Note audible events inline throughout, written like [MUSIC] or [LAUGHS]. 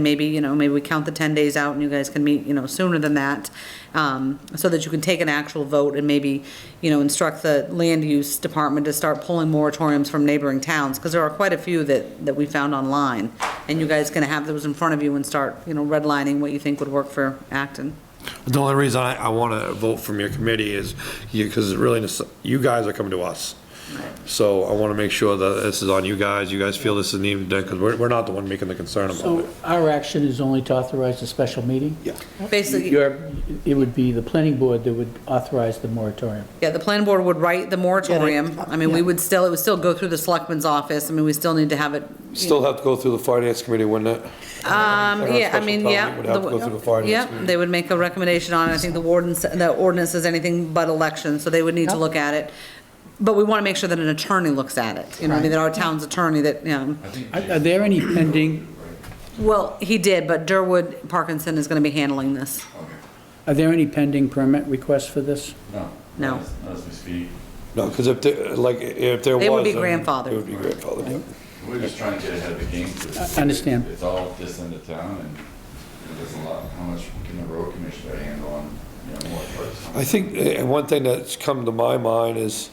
maybe, you know, maybe we count the 10 days out and you guys can meet, you know, sooner than that, um, so that you can take an actual vote and maybe, you know, instruct the land use department to start pulling moratoriums from neighboring towns, because there are quite a few that, that we found online. And you guys can have those in front of you and start, you know, redlining what you think would work for Acton. The only reason I, I want to vote from your committee is you, because really, you guys are coming to us. So I want to make sure that this is on you guys, you guys feel this is needed, because we're, we're not the one making the concern about So it. our action is only to authorize a special meeting? Yeah. Basically, Your- It would be the planning board that would authorize the moratorium. yeah, the planning board would write the moratorium. I mean, we yeah. would still, it would still go through the selectman's office. I mean, we still need to have it, Still have to go through the finance committee, wouldn't it? Um, Our yeah, I special mean, town yeah. meeting would have to go through the finance Yep, committee. they would make a recommendation on it. I think the ordinance, the ordinance is anything but election, so they would need to Yep. look at it. But we want to make sure that an attorney looks at it, you know, I mean, that our town's attorney that, you know. Are are there any pending, Well, he did, but Durwood Parkinson is going to be handling this. are there any pending permit requests for this? No. No. Not as- not as we speak. No, because if, there- like, if there was. They would be then grandfathered. It would be grandfathered, yeah. We're just trying to get ahead of the game. 'cause it's- I understand. It's all this into town and you know, there's a lot, how much can the road commissioner handle on, you know, more I parts? think, uh one thing that's come to my mind is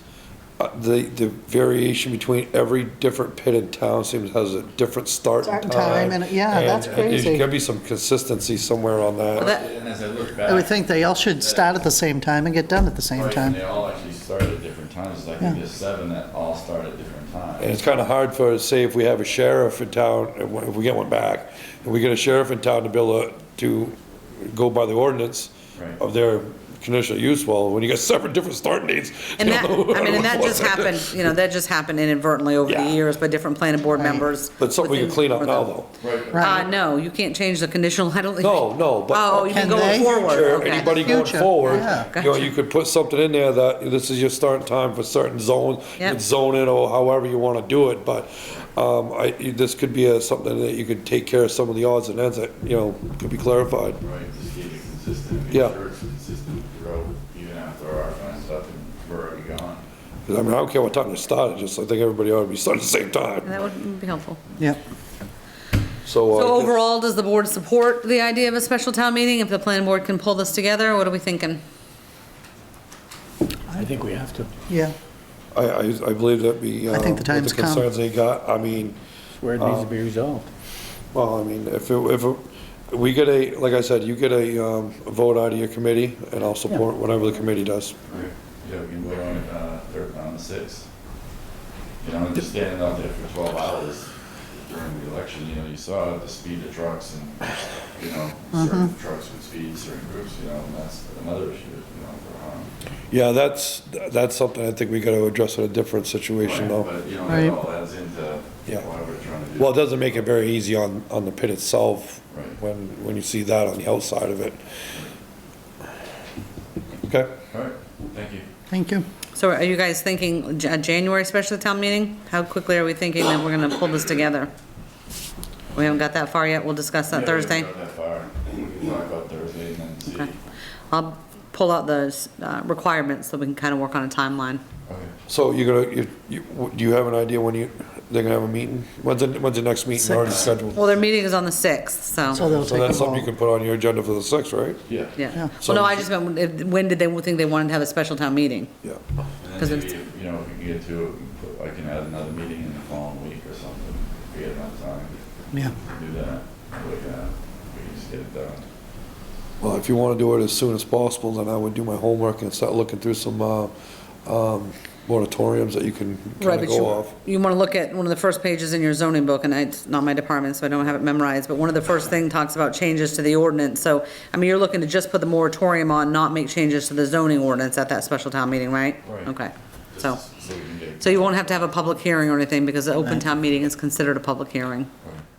uh, the, the variation between every different pit in town seems has a different start Start and and time. time, and- yeah, that's And, uh, There's crazy. gotta be some consistency somewhere on that. Well, that- And as I look back. I would think they all should start at the same time and get done at the same right, time. And they all actually started at different times. It's like Yeah. there's seven that all start at different And times. it's kind of hard for, us, say, if we have a sheriff in town, if we- if we get one back, and we get a sheriff in town to be able to- to go by the ordinance Right. of their conditional use, well, when you got seven different starting dates. And you that, don't know I mean, and [LAUGHS] that just what's- happened, you know, that just happened inadvertently over the Yeah. years by different planning board members. But something we can clean up within- now, though. Right. Uh, Right. no, you can't change the conditional, I don't think. No, no, but- Oh, you mean Can they? going forward, Sure, okay. anybody going Future, forward, yeah. you know, you could put something in there that this is your starting time for certain zones, Yep. and zone it or however you want to do it, but, um, I, this could be a, something that you could take care of some of the odds and ends that, you know, could be clarified. Right, just keep it consistent. Make Yeah. sure it's consistent throughout, even after our funds up and we're already gone. I mean, I don't care what time it started, just I think everybody ought to be starting at the same time, That would be helpful. Yep. so. uh, So overall, does the board support the idea of a special town meeting? If the planning board can pull this together, what are we thinking? I think we have to. Yeah, I, I, I believe that we. I think the um, with time's come. The concerns they got, I mean, Where it needs to be resolved. well, I mean, if, it- if, it- we get a, like I said, you get a, um, a vote out of your committee, and I'll support whatever the committee does. Okay. Yeah, we can vote on it, uh, third, on the sixth. You know, just standing out there for twelve hours during the election, you know, you saw the speed of trucks and, you know, certain trucks would speed, certain groups, you know, and that's another issue, you know, for, um. Yeah, that's, that's something I think we gotta address in a different situation, though. But, you know, Right. that all adds into Yeah. why we're trying to do. Well, it doesn't make it very easy on, on the pit itself, Right. when, when you see that on the outside of it. Okay? All right, thank you. thank you. So are you guys thinking J- a January special town meeting? How quickly are we thinking that we're gonna pull this together? We haven't got that far yet, we'll discuss that Yeah, we Thursday. haven't gone that far. We can talk about Thursday and then see. Okay. I'll pull out those uh, requirements so we can kind of work on a timeline. Okay. So you're gonna, you, you, do you have an idea when you, they're gonna have a meeting? When's the, when's the next meeting already scheduled? Well, their meeting is on the 6th, so, So they'll So take a that's something you vote. can put on your agenda for the sixth, right? Yeah. yeah. So- Well, no, I just meant, if- when did they think they wanted to have a special town meeting? Yeah. And 'Cause then it's- maybe, you know, if we can get to, it, we can put- I can add another meeting in the following week or something, if we have enough time Yeah, to do that. We, uh, we can just get it done. Well, if you wanna do it as soon as possible, then I would do my homework and start looking through some, uh, um, moratoriums that you can Right, kinda but go you, off. you want to look at one of the first pages in your zoning book, and it's not my department, so I don't have it memorized, but one of the first thing talks about changes to the ordinance, so, I mean, you're looking to just put the moratorium on, not make changes to the zoning ordinance at that special town meeting, right? Right. Okay, so, Just So we can get. so you won't have to have a public hearing or anything, because the open town meeting is considered a public hearing.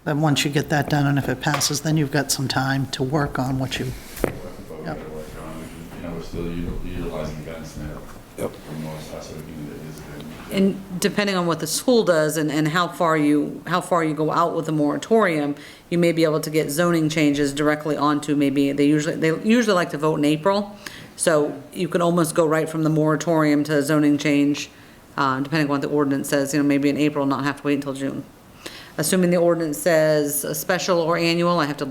then once you get that done, and if it passes, then you've got some time to work on what you, But we Yep. gotta work on, we can- you know, we're still util- utilizing guns now. Yep. From most, that's what we can do, is good. And depending on what the school does and, and how far you, how far you go out with the moratorium, you may be able to get zoning changes directly onto maybe, they usually, they usually like to vote in April. So you can almost go right from the moratorium to zoning change, uh, depending on what the ordinance says, you know, maybe in April, not have to wait until June. Assuming the ordinance says a special or annual, I have to